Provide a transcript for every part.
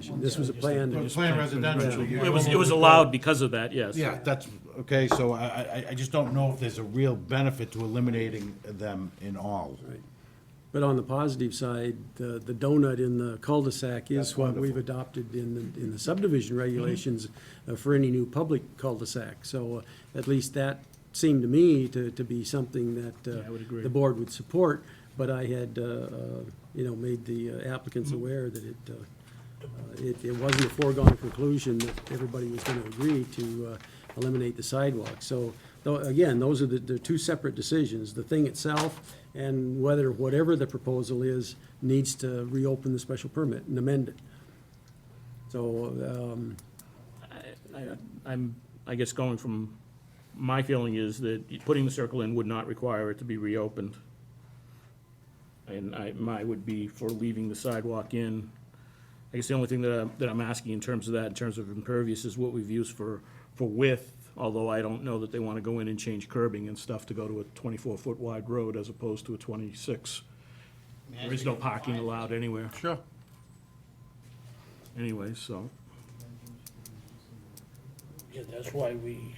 This was a plan to just. Plan residential. you It was, it know. was allowed because of that, yes. Yeah, that's, okay, so I, I, I just don't know if there's a real benefit to eliminating them in all. But on the positive side, the, the donut in the cul-de-sac is what we've adopted in, the in the subdivision Mm-hmm. regulations uh, for any new public cul-de-sac. So uh, at least that seemed to me to, to be something that. uh, Yeah, I would agree. The board would support, but I had, uh, uh, you know, made the uh, applicants Mm-hmm. aware that it, uh, uh, it, it wasn't a foregone conclusion that everybody was gonna agree to uh, eliminate the sidewalk. So, though, again, those are the, the two separate decisions, the thing itself and whether whatever the proposal is needs to reopen the special permit and amend it. So, um, I- I'm, I guess going from, my feeling is that putting the circle in would not require it to be reopened. And I, my would be for leaving the sidewalk in. I guess the only thing that I'm, that I'm asking in terms of that, in terms of impervious, is what we've used for, for width, although I don't know that they want to go in and change curbing and stuff to go to a twenty-four foot wide road as opposed to a twenty-six. There is no parking allowed anywhere. Sure. Anyway, so. Yeah, that's why we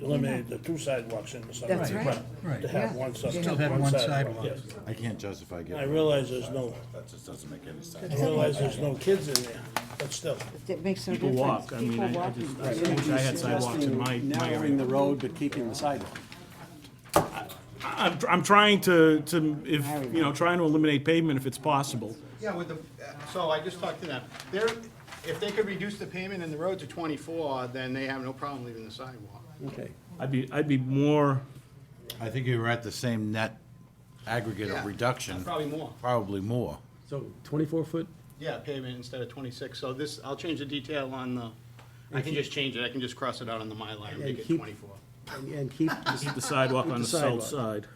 eliminated the two sidewalks in the summer. That's Right. right. Right. To have Yeah. one sidewalk. Still have one sidewalk. yes. I can't justify I getting, realize there's no, that just doesn't make any sense. I realize there's no kids in there, but still. It makes no People difference. walk, I mean, People I- I walking. just, I wish I had sidewalks in my, my narrowing area. the road but keeping the sidewalk. I'm, I'm trying to, to, if, you know, trying to eliminate pavement if it's possible. Yeah, with the, so I just talked to them. They're, if they could reduce the payment in the road to twenty-four, then they have no problem leaving the sidewalk. Okay. I'd be, I'd be more, I think you were at the same net aggregate Yeah, of reduction, Probably more. probably more. So twenty-four foot, Yeah, payment instead of twenty-six. So this, I'll change the detail on the, I can just change it. I can just cross it out on the Mylar and And make it keep- twenty-four. and and keep, keep the sidewalk on the the south sidewalk. side.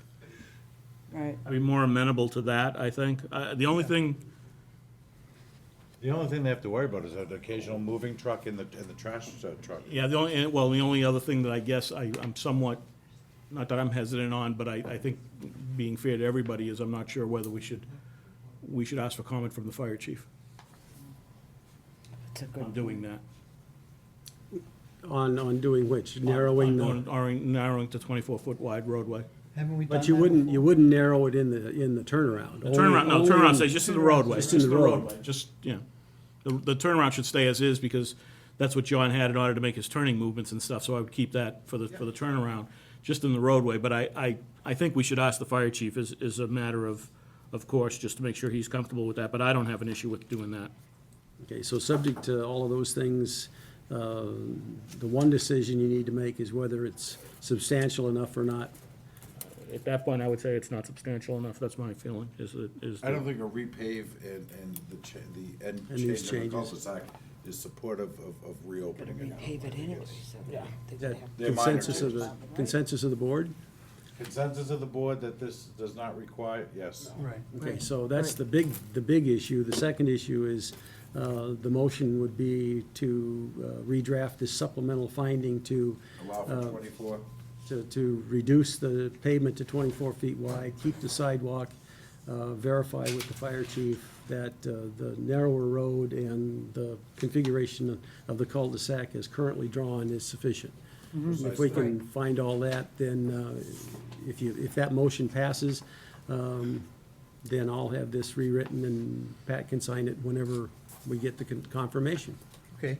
Right. I'd be more amenable to that, I think. Uh, the only thing, The only thing they have to worry about is that occasional moving truck and the, and the trash uh, truck. yeah, the only, well, the only other thing that I guess I, I'm somewhat, not that I'm hesitant on, but I, I think being fair to everybody is I'm not sure whether we should, we should ask for comment from the fire chief It's a on good, doing that. on, on doing which, narrowing the. On- on Narrowing to twenty-four foot wide roadway. Haven't we done that? But you wouldn't, you wouldn't narrow it in the, in the turnaround. The turnaround, no, Only- turnaround stays just in the roadway. Just in the roadway. Just, yeah. The, the turnaround should stay as is because that's what John had in order to make his turning movements and stuff, so I would keep that for the, for the turnaround, just in the roadway. But I, I, I think we should ask the fire chief is, is a matter of, of course, just to make sure he's comfortable with that, but I don't have an issue with doing that. Okay, so subject to all of those things, uh, the one decision you need to make is whether it's substantial enough or not. At that point, I would say it's not substantial enough, that's my feeling, is, it- is. I don't think a repave and, and the cha, the end And these change of the changes. cul-de-sac is supportive of, of reopening it. repave it anyway, so they Is would that have. They're minor consensus of the, consensus of the board? Consensus of the board that this does not require, yes. Right. Okay, so that's the big, the big issue. The second issue is, uh, the motion would be to uh, redraft this supplemental finding to Allow Uh, for twenty-four. to, to reduce the pavement to twenty-four feet wide, keep the sidewalk, uh, verify with the fire chief that uh, the narrower road and the configuration of the cul-de-sac as currently drawn is sufficient. If we can find all that, then, uh, if you, if that motion passes, um, then I'll have this rewritten and Pat can sign it whenever we get the con- confirmation. Okay.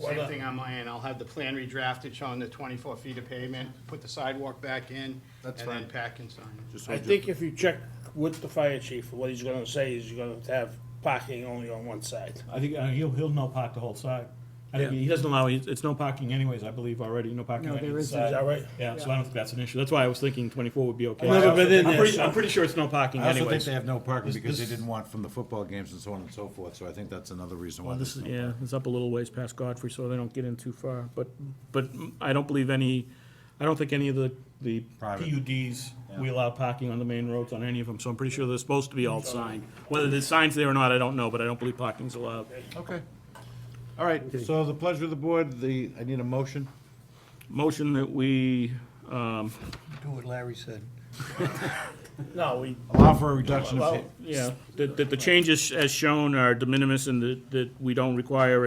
Same thing on my end. I'll have the plan redrafted showing the twenty-four feet of pavement, put the sidewalk back in, and That's then fine. pack and sign. Just I hold your- think if you check with the fire chief, what he's gonna say is you're gonna have parking only on one side. I think, uh, he'll, he'll no park the whole side. I think Yeah. he doesn't allow, it's it's no parking anyways, I believe already, no parking No, on there either isn't. side. Is that right? Yeah, so I don't think that's an issue. That's why I was thinking twenty-four would be okay. I've never been in I'm there, pretty- so- I'm pretty sure it's no parking I also think anyways. they have no parking This- because they this- didn't want from the football games and so on and so forth, so I think that's another reason why. Well, this there's is, no- yeah, it's up a little ways past Godfrey, so they don't get in too far, but, but I don't believe any, I don't think any of the, the Private. PUDs, we allow parking on the main roads on any of them, so I'm pretty sure they're supposed to be all signed. Whether the sign's there or not, I don't know, but I don't believe parking's allowed. Okay. All right, so the pleasure of the board, the, I need a motion. Motion that we, um, Do what Larry said. No, we, Allow for a reduction of. well, pa- Yeah, that, that the changes as shown are de minimis and that, that we don't require a